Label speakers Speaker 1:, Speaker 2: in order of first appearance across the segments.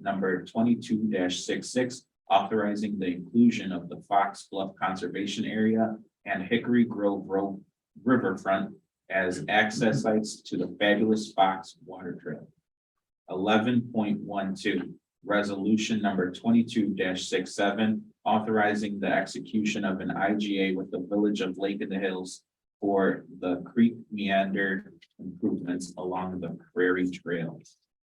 Speaker 1: number twenty-two 66 authorizing the inclusion of the Fox Bluff Conservation Area and Hickory Grove Road Riverfront as access sites to the fabulous Fox Water Trail. Eleven point one two, resolution number twenty-two 67 authorizing the execution of an IGA with the Village of Lake in the Hills for the creek meander improvements along the Prairie Trail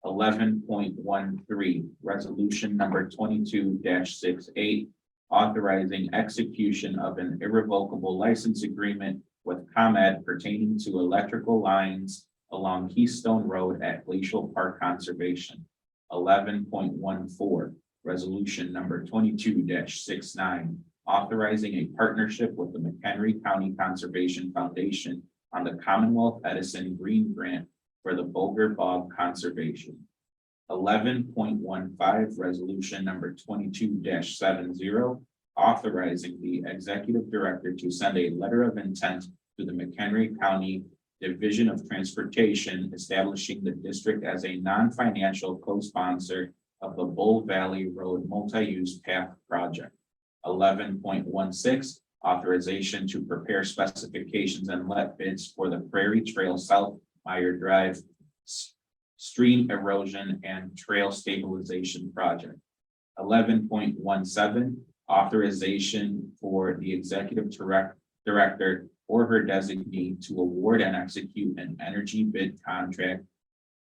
Speaker 1: eleven point one three, resolution number twenty-two 68 Authorizing execution of an irrevocable license agreement with ComEd pertaining to electrical lines. Along Keystone Road at Glacial Park Conservation. Eleven point one four, resolution number twenty-two 69 Authorizing a partnership with the McHenry County Conservation Foundation on the Commonwealth Edison Green Grant for the Boger Bog Conservation. Eleven point one five, resolution number twenty-two seven zero, authorizing the executive director to send a letter of intent to the McHenry County Division of Transportation, establishing the district as a non-financial co-sponsor of the Bull Valley Road Multi-Use Path Project. Eleven point one six, authorization to prepare specifications and let bids for the Prairie Trail South Meyer Drive s- Stream Erosion and Trail Stabilization Project. Eleven point one seven, authorization for the executive direct, director or her designee to award and execute an energy bid contract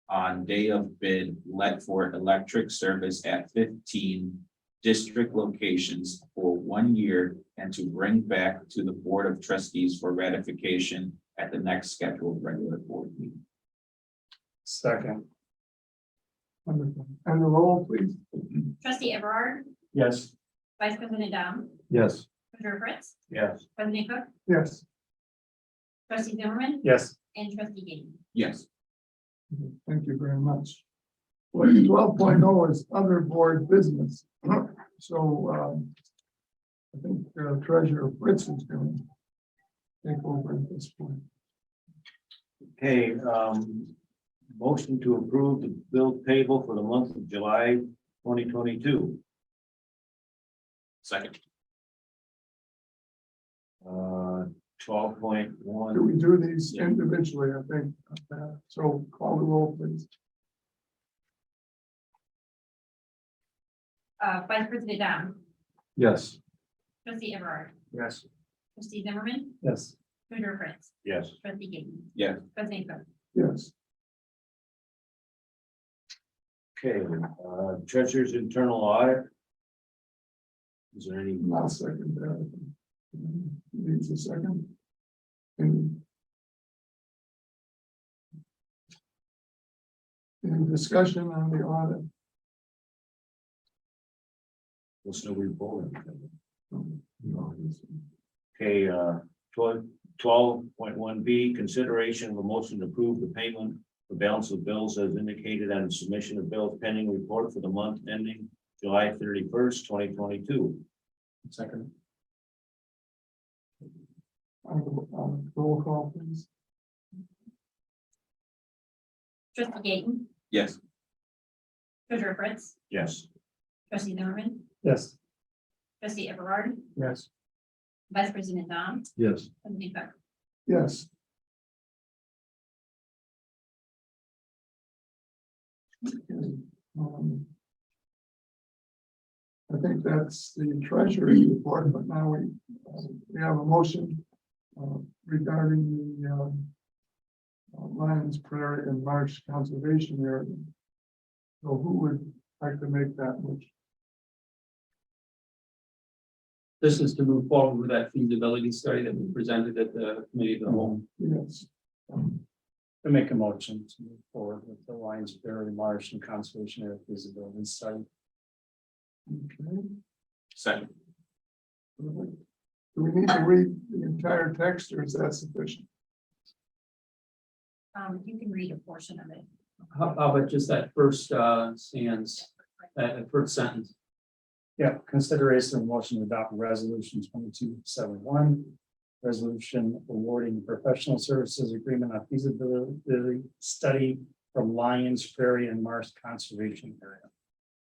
Speaker 1: on day of bid let for electric service at fifteen district locations for one year and to bring back to the Board of Trustees for ratification at the next scheduled regular board meeting.
Speaker 2: Second.
Speaker 3: Wonderful. And the roll, please.
Speaker 4: Trustee Everard,
Speaker 2: Yes.
Speaker 4: Vice President Dom,
Speaker 2: Yes.
Speaker 4: Treasurer Fritz,
Speaker 2: Yes.
Speaker 4: President Cook,
Speaker 3: Yes.
Speaker 4: Trustee Zimmerman,
Speaker 2: Yes.
Speaker 4: and Trustee Gayton.
Speaker 1: Yes,
Speaker 3: Thank you very much. Twelve oh is other board business. So, um, I think uh, Treasurer Fritz is going to take over at this point.
Speaker 5: Okay, um, motion to approve the bill payable for the month of July twenty twenty-two.
Speaker 1: second,
Speaker 5: Uh, twelve point
Speaker 3: Do
Speaker 5: one,
Speaker 3: we do these individually, I think? uh, So call the roll, please.
Speaker 4: Uh, Vice President Dom,
Speaker 2: Yes.
Speaker 4: Trustee Everard,
Speaker 2: Yes.
Speaker 4: Trustee Zimmerman,
Speaker 2: Yes.
Speaker 4: Treasurer Fritz,
Speaker 5: yes,
Speaker 4: Trustee Gayton.
Speaker 1: Yes.
Speaker 4: President Cook,
Speaker 3: Yes.
Speaker 5: okay, uh, treasurer's internal audit. Is there any,
Speaker 3: I'll second that. uh, Needs a second. And Any discussion on the audit?
Speaker 5: what's no report?
Speaker 3: Um, No, it's-
Speaker 5: Okay, uh, twelve, point one B, consideration of a motion to approve the payment. The balance of bills as indicated on submission of bills pending report for the month ending July thirty-first, twenty twenty-two.
Speaker 2: Second.
Speaker 3: on the- on the uh, Roll call, please.
Speaker 4: Trustee Gayton,
Speaker 1: yes,
Speaker 4: Treasurer Fritz,
Speaker 5: Yes,
Speaker 4: Trustee Zimmerman,
Speaker 2: Yes.
Speaker 4: Trustee Everard,
Speaker 2: Yes.
Speaker 4: Vice President Dom,
Speaker 2: Yes.
Speaker 4: President Cook.
Speaker 3: Yes, um, I think that's the treasury report, but now we, uh, we have a motion uh, regarding the um, uh, Lions Prairie and Marsh Conservation Area. So who would like to make that motion?
Speaker 6: This is to move forward with that feasibility study that we presented at the committee of the whole.
Speaker 3: Yes,
Speaker 2: I make a motion to move forward with the Lions Berry Marsh and Conservation Area feasibility study.
Speaker 3: okay.
Speaker 1: second,
Speaker 3: Do we need to read the entire text or is that sufficient?
Speaker 4: Um, you can read a portion of it.
Speaker 6: How how about just that first uh stands, that that first sentence?
Speaker 2: Yeah, consideration of motion to adopt resolution twenty-two seven one. Resolution awarding professional services agreement on feasibility study from Lions Prairie and Marsh Conservation Area.